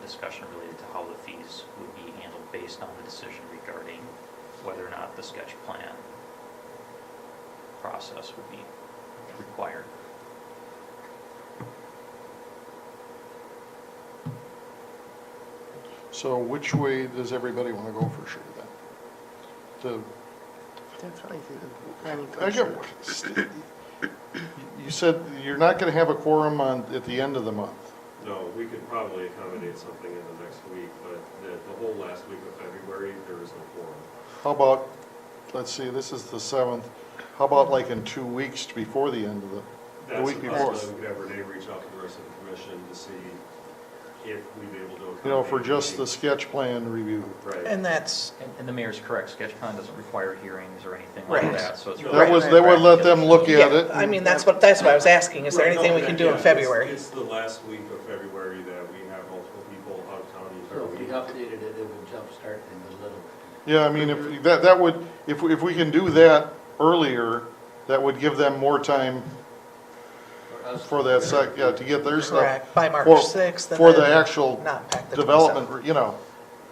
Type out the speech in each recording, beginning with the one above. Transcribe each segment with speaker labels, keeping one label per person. Speaker 1: discussion related to how the fees would be handled based on the decision regarding whether or not the sketch plan process would be required.
Speaker 2: So which way does everybody want to go for sure then?
Speaker 3: Definitely through the planning
Speaker 2: The, I
Speaker 3: commission.
Speaker 2: get, you said you're not going to have a quorum on, at the end of the month.
Speaker 4: No, we could probably accommodate something in the next week, but the, the whole last week of February, there is no quorum.
Speaker 2: How about, let's see, this is the seventh, how about like in two weeks before the end of the, the
Speaker 4: That's a
Speaker 2: week before?
Speaker 4: possibility. We could have Renee reach out to the rest of the commission to see if we'd be able to accommodate.
Speaker 2: You know, for just
Speaker 4: anything.
Speaker 2: the sketch plan review.
Speaker 4: Right,
Speaker 3: And that's,
Speaker 1: And- And the mayor's correct, sketch plan doesn't require hearings or anything like
Speaker 3: Right.
Speaker 1: that, so it's.
Speaker 4: That
Speaker 2: That
Speaker 1: really-
Speaker 2: was, that would let them look at
Speaker 3: yeah,
Speaker 2: it.
Speaker 3: I mean, that's what, that's what I was asking, is there
Speaker 4: Right, no,
Speaker 3: anything we
Speaker 4: that-
Speaker 3: can do
Speaker 4: yeah,
Speaker 3: in
Speaker 4: it's-
Speaker 3: February?
Speaker 4: It's the last week of February that we have multiple people out of town the
Speaker 5: So
Speaker 4: entire
Speaker 5: if we
Speaker 4: week.
Speaker 5: updated it, it would jumpstart things a little bit.
Speaker 2: Yeah, I mean, if, that, that would, if, we- if we can do that earlier, that would give them more time
Speaker 5: For us-
Speaker 2: for that sec, yeah, to get their stuff.
Speaker 3: Correct, by March
Speaker 2: for-
Speaker 3: 6th. and
Speaker 2: For the
Speaker 3: then
Speaker 2: actual
Speaker 3: not pack the 27th.
Speaker 2: development, you know,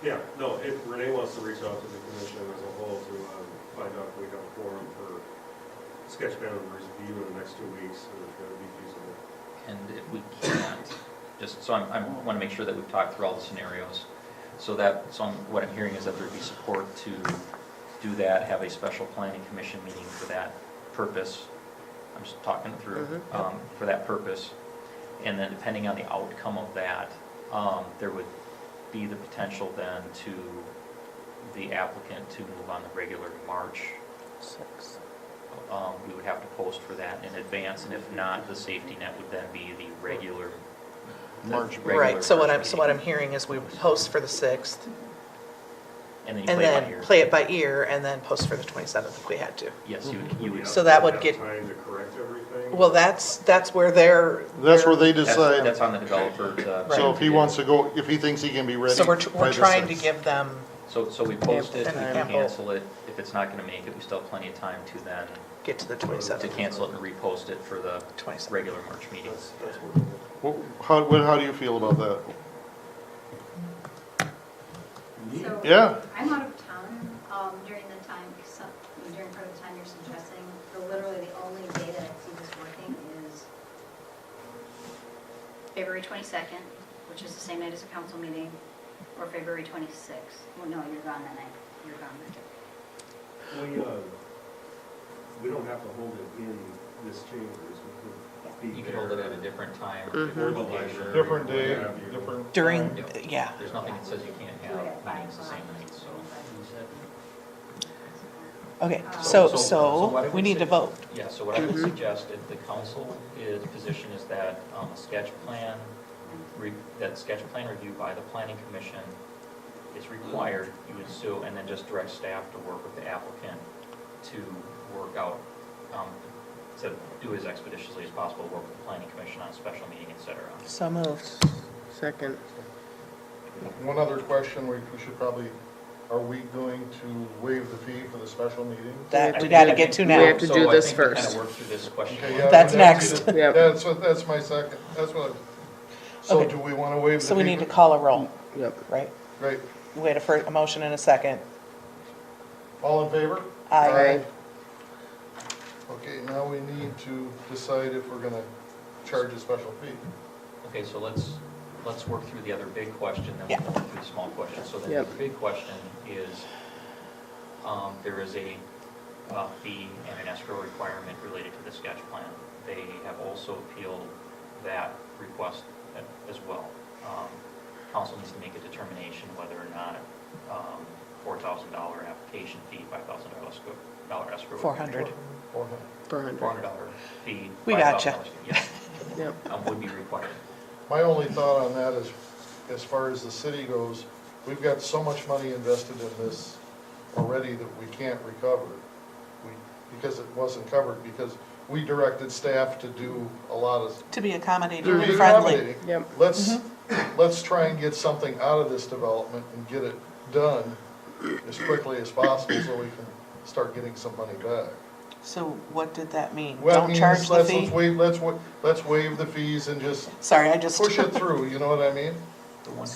Speaker 4: Yeah, no, if Renee wants to reach out to the commission as a whole to um, find out if we have a quorum for sketch plan review in the next two weeks, and if that would be feasible.
Speaker 1: And if we can't, just, so I'm, I want to make sure that we've talked through all the scenarios. So that, so I'm- what I'm hearing is that there'd be support to do that, have a special planning commission meeting for that purpose. I'm just talking it through,
Speaker 3: Mhm.
Speaker 1: um, for that purpose. And then depending on the outcome of that, um, there would be the potential then to the applicant to move on the regular March
Speaker 3: Six.
Speaker 1: um, we would have to post for that in advance, and if not, the safety net would then be the regular. the
Speaker 2: March.
Speaker 1: regular
Speaker 3: Right, so what
Speaker 1: March
Speaker 3: I'm, so what I'm
Speaker 1: meeting.
Speaker 3: hearing is we post for the 6th,
Speaker 1: And then you
Speaker 3: and
Speaker 1: play it by
Speaker 3: then
Speaker 1: ear.
Speaker 3: play it by ear, and then post for the 27th if we had to.
Speaker 1: Yes, you would, you
Speaker 4: We
Speaker 1: would.
Speaker 3: So that would
Speaker 4: have
Speaker 3: get-
Speaker 4: Time to correct everything?
Speaker 3: Well, that's, that's where they're.
Speaker 2: that's where they
Speaker 1: That's,
Speaker 2: decide.
Speaker 1: that's on the uh, developer to.
Speaker 2: So if he wants to go, if he thinks he can be ready.
Speaker 3: So we're, tr-
Speaker 2: by
Speaker 3: we're
Speaker 2: the
Speaker 3: trying to
Speaker 2: sixth.
Speaker 3: give them,
Speaker 1: So, so we post it, we
Speaker 3: And
Speaker 1: can
Speaker 3: then-
Speaker 1: cancel it, if it's not gonna make it, we still have plenty of time to then,
Speaker 3: get to the
Speaker 1: to
Speaker 3: 27th,
Speaker 1: cancel it and repost it for the
Speaker 3: 27th.
Speaker 1: regular March meeting.
Speaker 4: That's, that's what.
Speaker 2: Wh- How, what, how do you feel about that?
Speaker 6: So,
Speaker 2: Yeah.
Speaker 6: I'm out of town um, during the time, so- during part of the time you're suggesting, but literally the only day that I see this working is February 22nd, which is the same night as a council meeting, or February 26th. Well, no, you're gone that night, you're gone that day.
Speaker 4: We, uh, we don't have to hold it in this chamber, so we could be
Speaker 1: You
Speaker 4: there.
Speaker 1: could hold it at a different time.
Speaker 3: Mhm.
Speaker 1: different
Speaker 4: Or the
Speaker 1: location.
Speaker 4: library.
Speaker 2: Different day, different.
Speaker 3: during,
Speaker 1: Yep.
Speaker 3: yeah,
Speaker 1: There's nothing that says you can't
Speaker 6: Do it at
Speaker 1: have
Speaker 6: five
Speaker 1: meetings the same night, so.
Speaker 3: okay,
Speaker 6: So-
Speaker 3: so,
Speaker 1: what I
Speaker 3: so we
Speaker 1: would
Speaker 3: need to
Speaker 1: say-
Speaker 3: vote. Mm-hmm.
Speaker 1: Yeah, so what I would suggest, if the council is, position is that um, a sketch plan, re- that sketch plan review by the planning commission is required, you would sue, and then just direct staff to work with the applicant to work out, um, to do as expeditiously as possible, work with the planning commission on a special meeting, et cetera.
Speaker 3: So moved. Second.
Speaker 2: One other question, we, we should probably, are we going to waive the fee for the special meeting?
Speaker 3: That we gotta get to now.
Speaker 7: We have to do this
Speaker 1: So I think we kind
Speaker 7: first.
Speaker 1: of work through this question.
Speaker 2: Okay, yeah,
Speaker 3: That's
Speaker 2: but that's-
Speaker 3: next.
Speaker 7: Yep.
Speaker 2: That's what, that's my second, that's what, I- so
Speaker 3: Okay.
Speaker 2: do we want to waive the fee?
Speaker 3: So we need to call a roll,
Speaker 7: Yep.
Speaker 3: right?
Speaker 2: Right,
Speaker 3: We had a first, a motion and a second.
Speaker 2: all in favor?
Speaker 3: Aye.
Speaker 2: Okay, now we need to decide if we're gonna charge a special fee.
Speaker 1: Okay, so let's, let's work through the other big question, then
Speaker 3: Yeah.
Speaker 1: we'll work through the small question. So then the
Speaker 7: Yep.
Speaker 1: other big question is, um, there is a uh, fee and an escrow requirement related to the sketch plan. They have also appealed that request a- as well. Um, Council needs to make a determination whether or not um, $4,000 application fee, $5,000 escrow- dollar escrow.
Speaker 3: Four hundred.
Speaker 2: Four hundred.
Speaker 7: Four hundred,
Speaker 1: $400 fee.
Speaker 3: We gotcha.
Speaker 1: $5,000 fee, Yes,
Speaker 7: yep.
Speaker 1: um, would be required.
Speaker 2: My only thought on that is, as far as the city goes, we've got so much money invested in this already that we can't recover. We, because it wasn't covered, because we directed staff to do a lot of.
Speaker 3: To be accommodating
Speaker 2: to be
Speaker 3: and friendly.
Speaker 2: accommodating.
Speaker 3: Mm-hmm.
Speaker 7: Yep.
Speaker 2: Let's, let's try and get something out of this development and get it done as quickly as possible so we can start getting some money back.
Speaker 3: So what did that mean?
Speaker 2: Well,
Speaker 3: Don't
Speaker 2: means
Speaker 3: charge the
Speaker 2: let's-
Speaker 3: fee?
Speaker 2: Let's waive, let's, wa- let's waive the fees and just
Speaker 3: Sorry, I just.
Speaker 2: push it through, you know what I mean?
Speaker 1: The one